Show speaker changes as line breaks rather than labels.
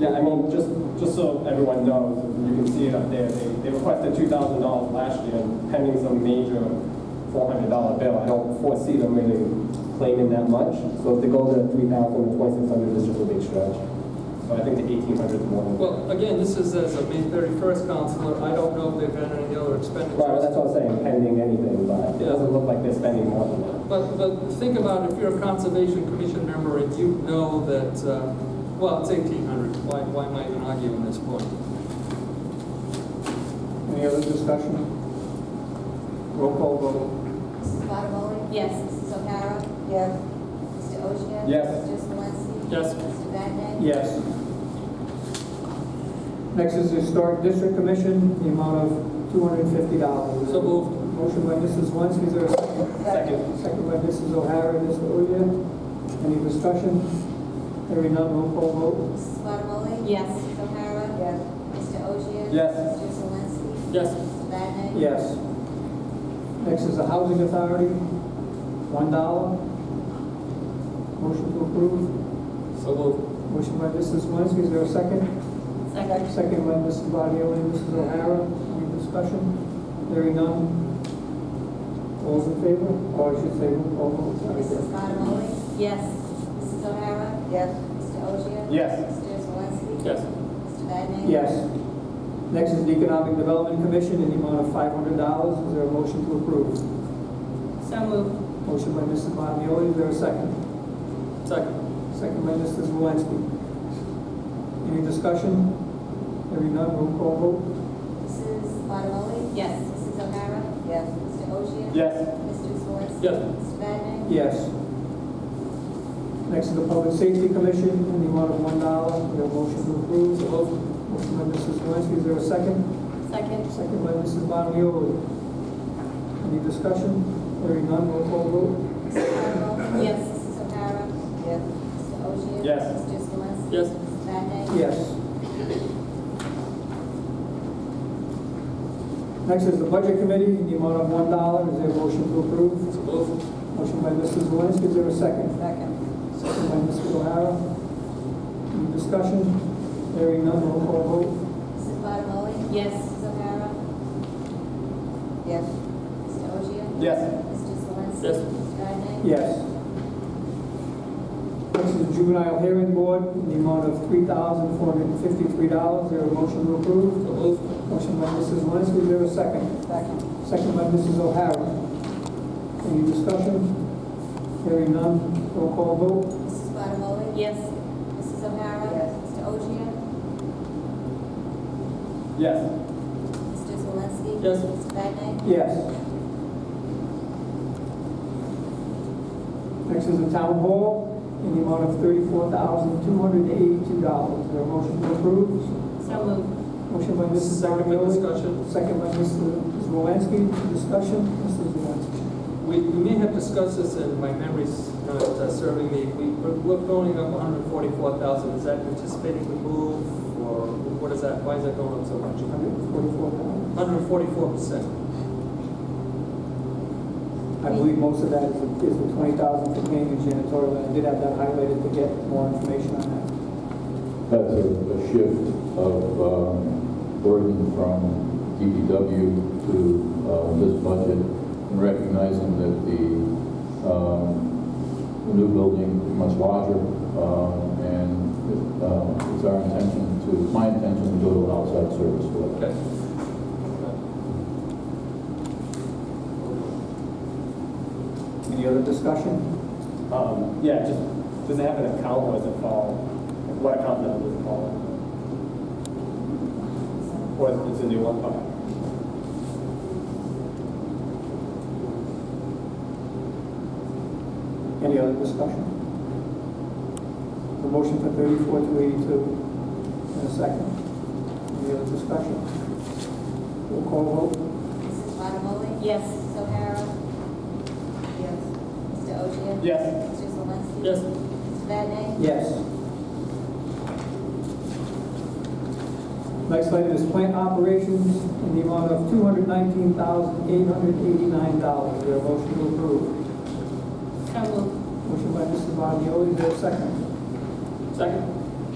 Yeah, I mean, just, just so everyone knows, you can see it up there, they, they requested two thousand dollars last year pending some major four hundred dollar bill. I don't foresee them really claiming that much, so if they go to three thousand or twenty-six hundred, this just a big stretch. So I think the eighteen hundred is more than.
Well, again, this is as of May 31st, Counselor, I don't know if they've had any other
Right, that's
expenditures.
what I'm saying, pending anything, but it doesn't look like they're spending more than that.
But, but think about if you're a Conservation Commission member and you know that, uh, well, it's 1,800, why, why am I even arguing this point?
Any other discussion? Roll call vote.
Mrs. Bottomoli?
Yes.
Mrs. O'Hara? Yes. Mr. Oshia?
Yes.
Mr. Swansky?
Yes.
Mr. Vannen?
Yes. Next is the Historic District Commission, the amount of two hundred and fifty dollars.
So moved.
Motion by Mrs. Zalinski, is there a second?
Second.
Second by Mrs. O'Hara and Mr. Oya. Any discussion? Hearing none, roll call vote.
Mrs. Bottomoli?
Yes.
Mrs. O'Hara? Yes. Mr. Oshia?
Yes.
Mr. Swansky?
Yes.
Mr. Vannen?
Yes. Next is the Housing Authority, one dollar. Motion to approve.
So moved.
Motion by Mrs. Zalinski, is there a second?
Second.
Second by Mrs. Bodioli and Mrs. O'Hara. Any discussion? Hearing none. All's in favor? Or Oh, I should say, roll call vote.
Mrs.
Sorry.
Bottomoli?
Yes.
Mrs. O'Hara? Yes. Mr. Oshia?
Yes.
Mr. Swansky?
Yes.
Mr. Vannen?
Yes. Next is the Economic Development Commission in the amount of five hundred dollars. Is there a motion to approve?
So moved.
Motion by Mrs. Bodioli. Is there a second?
Second.
Second by Mrs. Malinsky. Any discussion? Hearing none. Roll call vote.
Mrs. Bottomoli?
Yes.
Mrs. O'Hara? Yes. Mr. Oshia?
Yes.
Mr. Swansky?
Yes.
Mr. Vannen?
Yes. Next is the Public Safety Commission in the amount of one dollar. Is there a motion to approve?
So moved.
Motion by Mrs. Zelinski, is there a second?
Second.
Second by Mrs. Bonioli. Any discussion? Hearing none, roll call vote.
Mrs. Bottomoli?
Yes.
Mrs. O'Hara? Yes. Mr. Oshia?
Yes.
Mr. Swansky?
Yes.
Mr. Vannen?
Yes. Next is the Budget Committee, in the amount of one dollar, is there a motion to approve?
So moved.
Motion by Mrs. Zelinski, is there a second? Second. Second by Mrs. O'Hara. Any discussion? Hearing none, roll call vote.
Mrs. Bottomoli?
Yes.
Mrs. O'Hara? Yes. Mr. Oshia?
Yes.
Mr. Swansky?
Yes.
Mr. Vannen?
Yes. Next is Juvenile Hearing Board, in the amount of three thousand four hundred and fifty-three dollars, is there a motion to approve?
So moved.
Motion by Mrs. Zelinski, is there a second?
Second.
Second by Mrs. O'Hara. Any discussion? Hearing none, roll call vote.
Mrs. Bottomoli?
Yes.
Mrs. O'Hara? Yes. Mr. Oshia?
Yes.
Mr. Swansky?
Yes.
Mr. Vannen?
Yes. Next is the Town Hall, in the amount of thirty-four thousand two hundred and eighty-two dollars. Is there a motion to approve?
So moved.
Motion by Mrs.
Second by
Bottomoli.
discussion.
Second by Mrs. Zelinski, discussion, Mrs. Zelinski.
We, we may have discussed this, and my memory's not uh, serving me. We, we're we're going up 144,000. Is that anticipating the move, or what is that? Why is that going up so much?
Forty-four thousand.
144%.
I believe most of that is the is the 20,000 for paying and janitorial, and I did have that highlighted to get more information on that.
That's a a shift of um, burden from DPW to uh, this budget, and recognizing that the um, new building is much larger, um, and it, uh, it's our intention to, my intention to go to an outside service for that.
Okay.
Any other discussion?
Um, yeah, just, does it have an account or does it fall, like, what account number does it fall in? Or is it a new one? Okay.
Any other discussion? The motion for 34 to 82, and a second. Any other discussion? Roll call vote?
Mrs. Bottomoli?
Yes.
Mrs. O'Hara? Yes. Mr. Oshia?
Yes.
Mr. Swansky?
Yes.
Mr. Vannen?
Yes. Next item is plant operations in the amount of $219,889. Is there a motion to approve?
So moved.
Motion by Mrs. Bonioli, is there a second?
Second?